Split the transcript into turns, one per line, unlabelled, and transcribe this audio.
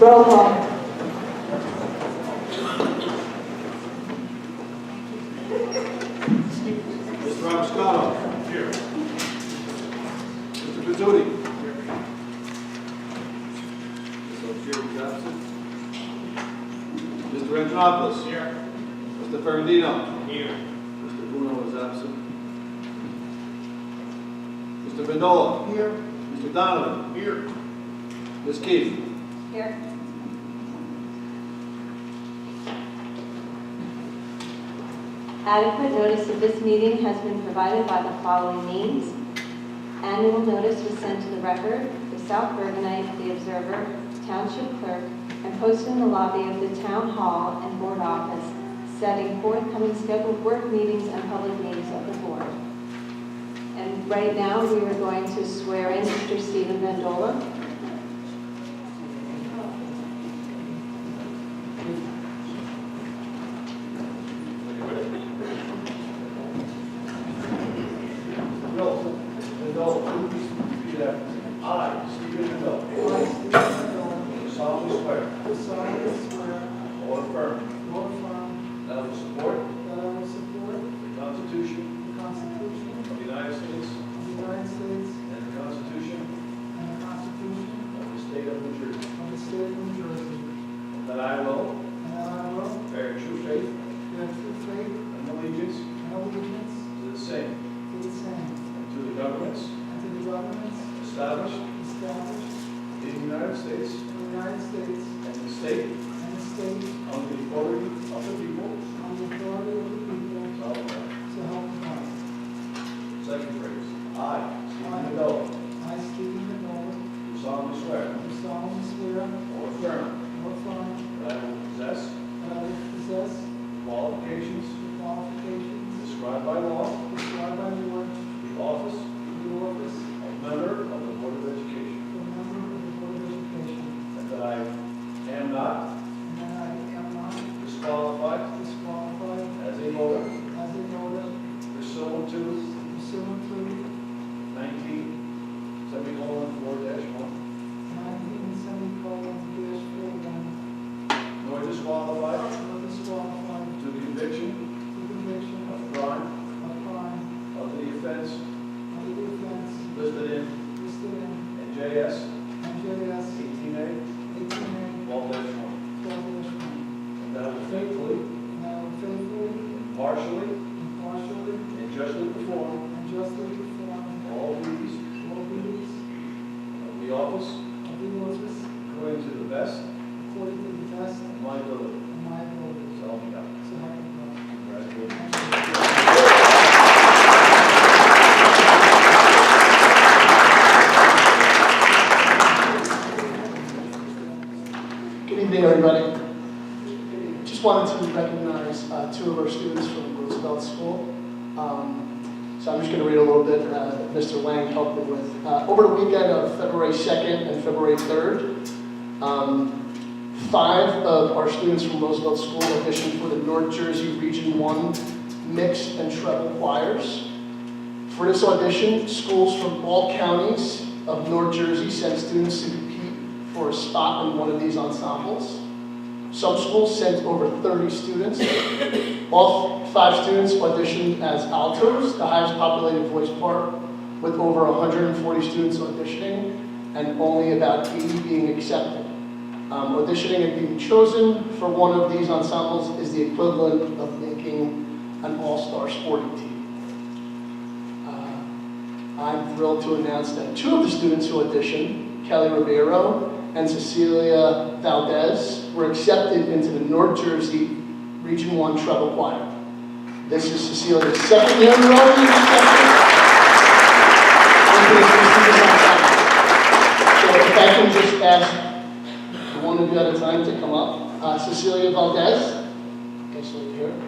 Roll call.
Mr. Abiscato. Here. Mr. Pizzuti. Here. Mr. O'Shea is absent. Mr. Antonopoulos. Here. Mr. Ferrandino. Here. Mr. Bruno is absent. Mr. Vindola. Here. Mr. Donovan. Here. Ms. Keefe.
Here. Adequate notice of this meeting has been provided by the following means. Annual notice was sent to the record, the South Bergenite, the Observer, Township Clerk, and posted in the lobby of the Town Hall and Board Office, setting forthcoming scheduled work meetings and public meetings of the Board. And right now, we are going to swear in Mr. Stephen Mendola.
Milton, Mendola, please repeat after me. I, Stephen Mendola,
I, Stephen Dolan,
do solemnly swear
do solemnly swear
or affirm
or affirm
that I will support
that I will support
the Constitution
the Constitution
of the United States
of the United States
and the Constitution
and the Constitution
of the State of New Jersey,
of the State of New Jersey,
and that I will
and that I will
bear true faith
bear true faith
and allegiance
and allegiance
to the same
to the same
and to the governments
and to the governments
established
established
in the United States
in the United States
and the state
and the state
under the authority of the people.
on the authority of the people
So help me God.
to help us.
Second phrase. I, Stephen Mendola,
I, Stephen Dolan,
do solemnly swear
do solemnly swear
or affirm
or affirm
that I will possess
that I will possess
qualifications
the qualifications
described by law
Described by the word,
for the office
the office,
of member of the Board of
the
Education,
member of the Board of Education,
and that I am not
and that I am not
disqualified
disqualified
as a voter
as a voter
pursuant to
pursuant to
nineteen semicolon four dash one,
nineteen seventy-four, dash four, one,
nor disqualified
or disqualified
to the conviction
to conviction
of crime
of crime
of the offense
of the offense
listed in
listed in
NJS
NJS
eighteen A
eighteen
twelve dash one,
A, twelve, dash one,
and that I will faithfully,
and I will faithfully,
impartially,
impartially,
and justly perform
and justly perform
all duties
all duties
of the office
of the office
according to the best
according to the best
of my ability.
of my ability.
So help me God.
So help me God.
Congratulations.
Good evening, everybody. Just wanted to recognize uh, two of our students from Roosevelt School. Um, So I'm just going to read a little bit uh, that Mr. Lang helped me with. Uh, Over the weekend of February 2nd and February 3rd, um, five of our students from Roosevelt School auditioned for the North Jersey Region 1 Mixed and Treble Choirs. For this audition, schools from all counties of North Jersey sent students to compete for a spot in one of these ensembles. Some schools sent over 30 students. All five students auditioned as altos, the highest populated voice part, with over 140 students auditioning and only about 80 being accepted. Um, auditioning and being chosen for one of these ensembles is the equivalent of making an all-star sporting team. Uh, I'm thrilled to announce that two of the students who auditioned, Kelly Ribeiro and Cecilia Valdez were accepted into the North Jersey Region 1 Treble Choir. This is Cecilia's second year enrolling in the choir. So if I can just ask the one of you at a time to come up. Uh, Cecilia Valdez, I guess right here.